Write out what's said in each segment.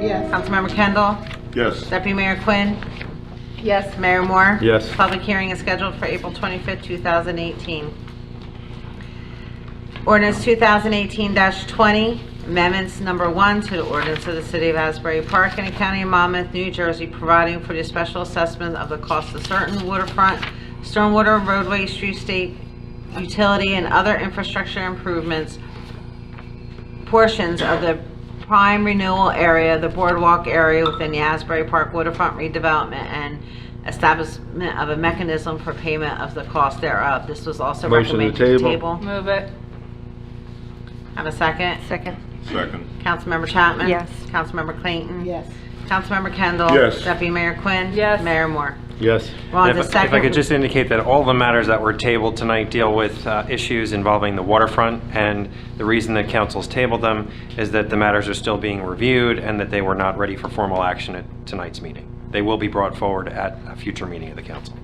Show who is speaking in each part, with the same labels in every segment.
Speaker 1: Yes.
Speaker 2: Councilmember Kendall?
Speaker 3: Yes.
Speaker 2: Deputy Mayor Quinn?
Speaker 1: Yes.
Speaker 2: Mayor Moore?
Speaker 3: Yes.
Speaker 2: Public hearing is scheduled for April 25th, 2018. Ordinance 2018-20, amendments number one to the ordinance of the City of Asbury Park and the County of Monmouth, New Jersey, providing for the special assessment of the cost of certain waterfront, stormwater, roadway, street state, utility, and other infrastructure improvements portions of the prime renewal area, the boardwalk area within the Asbury Park waterfront redevelopment and establishment of a mechanism for payment of the cost thereof. This was also
Speaker 3: Motion to
Speaker 2: recommended to
Speaker 3: table.
Speaker 2: table.
Speaker 1: Move it.
Speaker 2: Have a second?
Speaker 1: Second.
Speaker 3: Second.
Speaker 2: Councilmember Chapman?
Speaker 1: Yes.
Speaker 2: Councilmember Clayton?
Speaker 1: Yes.
Speaker 2: Councilmember Kendall?
Speaker 3: Yes.
Speaker 2: Deputy Mayor Quinn?
Speaker 1: Yes.
Speaker 2: Mayor Moore?
Speaker 3: Yes.
Speaker 2: Ron's the
Speaker 4: And if- If I
Speaker 2: second.
Speaker 4: could just indicate that all the matters that were tabled tonight deal with uh, issues involving the waterfront, and the reason that council's tabled them is that the matters are still being reviewed and that they were not ready for formal action at tonight's meeting. They will be brought forward at a future meeting of the council.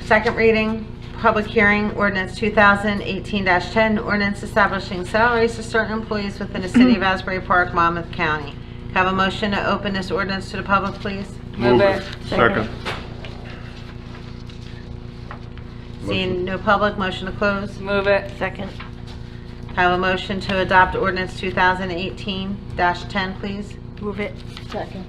Speaker 2: Second reading, public hearing, ordinance 2018-10, ordinance establishing salaries to certain employees within the city of Asbury Park, Monmouth County. Can I Have a motion to open this ordinance to the public, please?
Speaker 1: Move it.
Speaker 3: Second.
Speaker 2: Seeing no public, motion to close.
Speaker 1: Move it. Second.
Speaker 2: Can I Have a motion to adopt ordinance 2018-10, please?
Speaker 1: Move it. Second.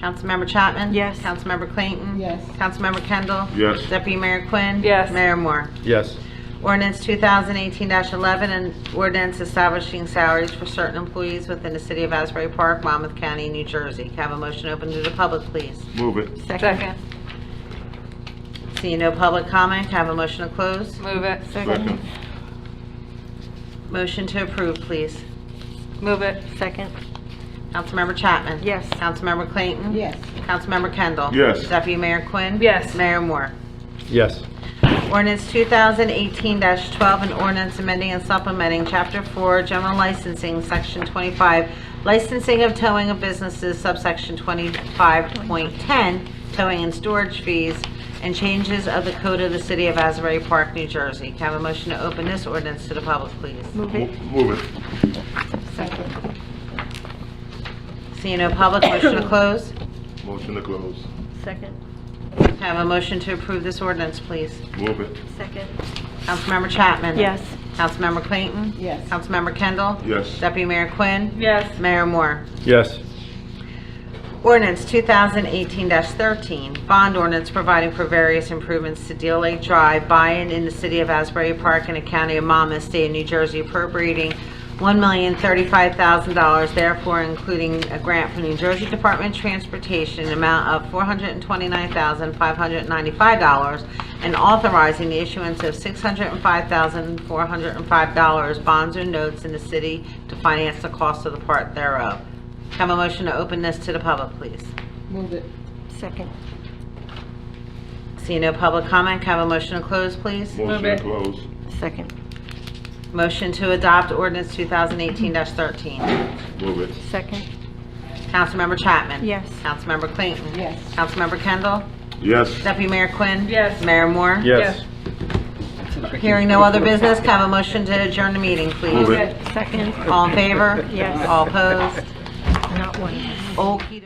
Speaker 2: Councilmember Chapman?
Speaker 1: Yes.
Speaker 2: Councilmember Clayton?
Speaker 1: Yes.
Speaker 2: Councilmember Kendall?
Speaker 3: Yes.
Speaker 2: Deputy Mayor Quinn?
Speaker 1: Yes.
Speaker 2: Mayor Moore?
Speaker 3: Yes.
Speaker 2: Ordinance 2018-11, an ordinance establishing salaries for certain employees within the city of Asbury Park, Monmouth County, New Jersey. Can I have a motion open to the public, please?
Speaker 3: Move it.
Speaker 1: Second.
Speaker 2: Seeing no public comment, can I have a motion to close?
Speaker 1: Move it.
Speaker 3: Second.
Speaker 2: Motion to approve, please.
Speaker 1: Move it. Second.
Speaker 2: Councilmember Chapman?
Speaker 1: Yes.
Speaker 2: Councilmember Clayton? Councilmember Kendall?
Speaker 3: Yes.
Speaker 2: Deputy Mayor Quinn?
Speaker 1: Yes.
Speaker 2: Mayor Moore?
Speaker 3: Yes.
Speaker 2: Ordinance 2018-12, an ordinance amending and supplementing Chapter 4, General Licensing, Section 25, Licensing of Towing of Businesses, subsection 25.10, Towing and Storage Fees, and changes of the Code of the City of Asbury Park, New Jersey. Can I have a motion to open this ordinance to the public, please?
Speaker 1: Move it.
Speaker 3: Move it.
Speaker 1: Second.
Speaker 2: Seeing no public, motion to close.
Speaker 3: Motion to close.
Speaker 1: Second.
Speaker 2: Can I have a motion to approve this ordinance, please?
Speaker 3: Move it.
Speaker 1: Second.
Speaker 2: Councilmember Chapman?
Speaker 1: Yes.
Speaker 2: Councilmember Clayton?
Speaker 1: Yes.
Speaker 2: Councilmember Kendall?
Speaker 3: Yes.
Speaker 2: Deputy Mayor Quinn?
Speaker 1: Yes.
Speaker 2: Mayor Moore?
Speaker 3: Yes.
Speaker 2: Ordinance 2018-13, bond ordinance providing for various improvements to Deal Lake Drive, buy-in in the city of Asbury Park and the county of Monmouth, state of New Jersey appropriating $1,035,000, therefore including a grant from New Jersey Department of Transportation, an amount of $429,595, and authorizing the issuance of $605,405 bonds or notes in the city to finance the cost of the part thereof. Have a motion to open this to the public, please.
Speaker 1: Move it. Second.
Speaker 2: See no public comment, can I have a motion to close, please?
Speaker 3: Motion to close.
Speaker 1: Second.
Speaker 2: Motion to adopt ordinance 2018-13.
Speaker 3: Move it.
Speaker 1: Second.
Speaker 2: Councilmember Chapman?
Speaker 1: Yes.
Speaker 2: Councilmember Clayton?
Speaker 1: Yes.
Speaker 2: Councilmember Kendall?
Speaker 3: Yes.
Speaker 2: Deputy Mayor Quinn?
Speaker 1: Yes.
Speaker 2: Mayor Moore?
Speaker 3: Yes.
Speaker 2: Hearing no other business, can I have a motion to adjourn the meeting,
Speaker 3: Move
Speaker 2: please?
Speaker 3: it.
Speaker 1: Second.
Speaker 2: All in favor?
Speaker 1: Yes.
Speaker 2: All opposed?
Speaker 1: Not one.
Speaker 2: Okey-dokey.